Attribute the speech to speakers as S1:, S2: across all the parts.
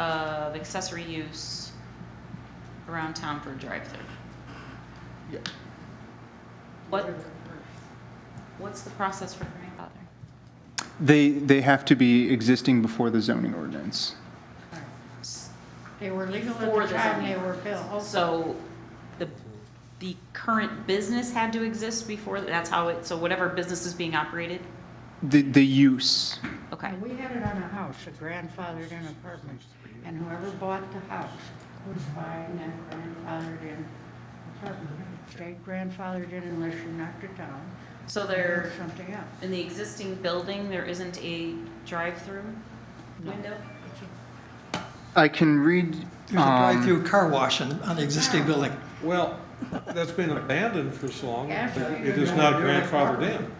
S1: of accessory use around town for a drive-through.
S2: Yeah.
S1: What, what's the process for grandfathering?
S2: They, they have to be existing before the zoning ordinance.
S3: They were legal
S1: For
S3: at
S1: the
S3: the time they
S1: zoning.
S3: were built.
S1: So the, the current business had to exist before, that's how it, so whatever business is being operated?
S2: The, the use,
S1: Okay,
S3: We had it on a house, a grandfathered in apartment, and whoever bought the house was buying that grandfathered in apartment. Stayed grandfathered in unless you knocked it down.
S1: so
S3: or
S1: there,
S3: Something else.
S1: in the existing building, there isn't a drive-through window?
S2: I can read,
S4: There's a
S2: um,
S4: drive-through car wash on, on the existing building.
S5: Well, that's been abandoned for so long,
S3: Yeah, so
S5: it
S3: you're
S5: is
S3: gonna
S5: not
S3: do it.
S5: grandfathered in.
S2: um,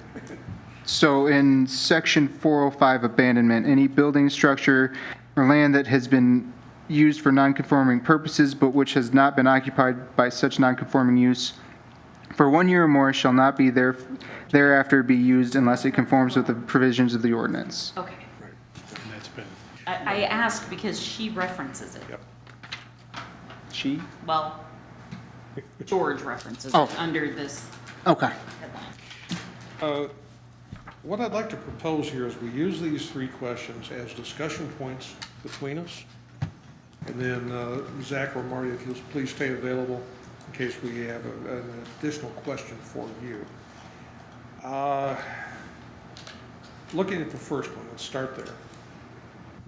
S2: so in section 405 abandonment, any building, structure, or land that has been used for non-conforming purposes but which has not been occupied by such non-conforming use for one year or more shall not be there, thereafter be used unless it conforms with the provisions of the ordinance.
S1: Okay,
S5: Right, and that's been,
S1: I, I ask because she references it.
S5: yep.
S2: She?
S1: Well, George references
S2: Oh.
S1: it under this
S2: Okay.
S1: headline.
S5: Uh, What I'd like to propose here is we use these three questions as discussion points between us. And then uh, Zach or Marty, if you'll please stay available in case we have a- an additional question for you. Uh, Looking at the first one, let's start there.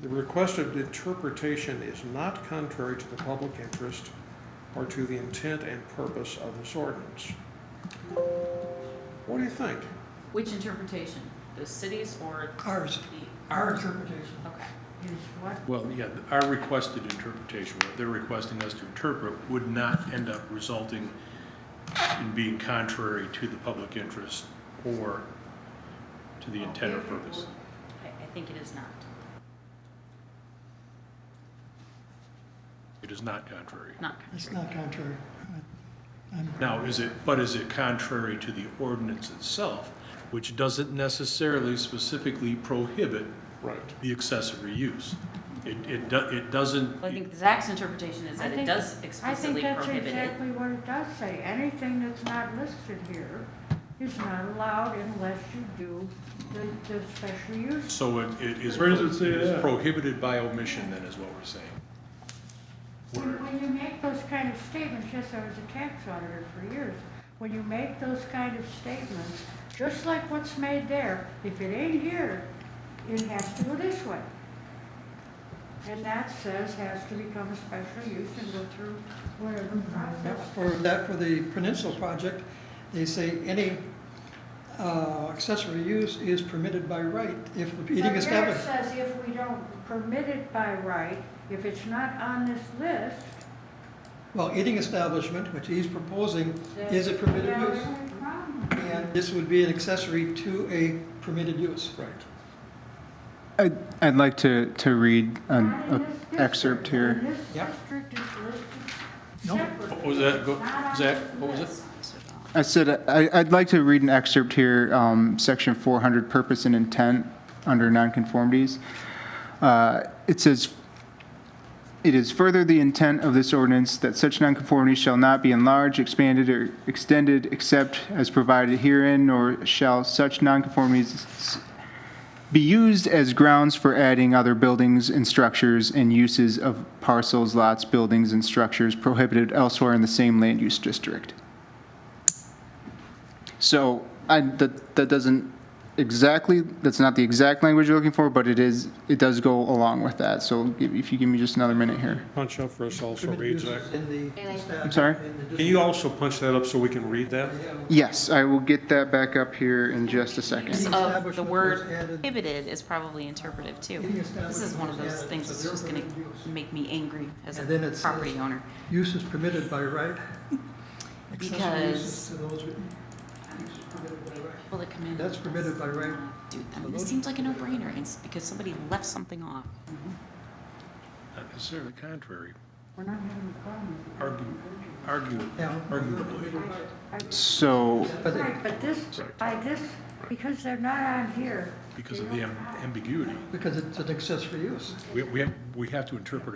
S5: The requested interpretation is not contrary to the public interest or to the intent and purpose of this ordinance. What do you think?
S1: Which interpretation? The cities or
S4: Ours,
S1: the,
S4: our interpretation.
S1: okay.
S3: Is what?
S6: Well, yeah, our requested interpretation, what they're requesting us to interpret, would not end up resulting in being contrary to the public interest or to the intent or purpose.
S1: I, I think it is not.
S6: It is not contrary.
S1: Not
S4: It's
S1: contrary.
S4: not contrary. I'm-
S6: Now, is it, but is it contrary to the ordinance itself, which doesn't necessarily specifically prohibit
S5: Right.
S6: the accessory use? It, it, do- it doesn't.
S1: Well, I think Zach's interpretation is
S3: I
S1: that it
S3: think-
S1: does
S3: I think
S1: explicitly
S3: that's
S1: prohibit it.
S3: exactly what it does say. Anything that's not listed here is not allowed unless you do the, the special use
S6: So it, it is.
S7: Where does it say
S6: is
S7: that?
S6: Prohibited by omission then is what we're saying.
S3: When when you make those kind of statements, yes, I was a tax auditor for years. When you make those kind of statements, just like what's made there, if it ain't here, it has to go this way. And that says has to become a special use and go through whatever process.
S4: For that, for the Peninsula project, they say any uh, accessory use is permitted by right if the eating
S3: But there
S4: establishment.
S3: says if we don't permit it by right, if it's not on this list,
S4: Well, eating establishment, which he's proposing,
S3: then.
S4: is a permitted
S3: then
S4: use.
S3: we're in problem.
S4: And this would be an accessory to a permitted use.
S5: Right.
S2: I'd, I'd like to, to read an
S3: Not in
S2: a
S3: this district.
S2: excerpt here.
S3: In this
S4: Yep.
S3: district, it's listed
S4: No.
S3: separately.
S6: What was that? Go-
S3: It's not on
S6: Zach,
S3: this
S6: what was it?
S3: list.
S2: I said, I, I'd like to read an excerpt here, um, section 400, purpose and intent, under nonconformities. Uh, It says, "It is further the intent of this ordinance that such nonconformity shall not be enlarged, expanded, or extended except as provided herein, nor shall such nonconformities s- be used as grounds for adding other buildings and structures and uses of parcels, lots, buildings, and structures prohibited elsewhere in the same land use district." So I, that, that doesn't exactly, that's not the exact language you're looking for, but it is, it does go along with that. So if if you give me just another minute here.
S5: Punch up for us also,
S4: Permitted
S5: read Zach.
S4: uses in the.
S2: I'm sorry?
S5: Can you also punch that up so we can read that?
S2: Yes, I will get that back up here in just a second.
S1: Use of the
S4: Establishment
S1: word
S4: was added-
S1: prohibited is probably interpretive too.
S4: Eating
S1: This is one of
S4: establishment was
S1: those
S4: added,
S1: things
S4: so
S1: that's
S4: they're
S1: just gonna
S4: permitted use.
S1: make me angry as
S4: And then it
S1: a
S4: says-
S1: property owner.
S4: Use is permitted by right. Accessory
S1: Because-
S4: uses to those with- use is permitted by right.
S1: People that come in.
S4: That's permitted by right.
S1: Dude, I mean, it seems like a no-brainer. It's because somebody left something off.
S6: Not necessarily contrary,
S3: We're not having a problem.
S6: argue, argue,
S4: Yeah.
S6: arguably.
S2: So
S4: But it-
S3: Right, but this, by this, because they're not on here,
S6: because of the am- ambiguity.
S4: Because it's an accessory use.
S6: We, we have, we have to interpret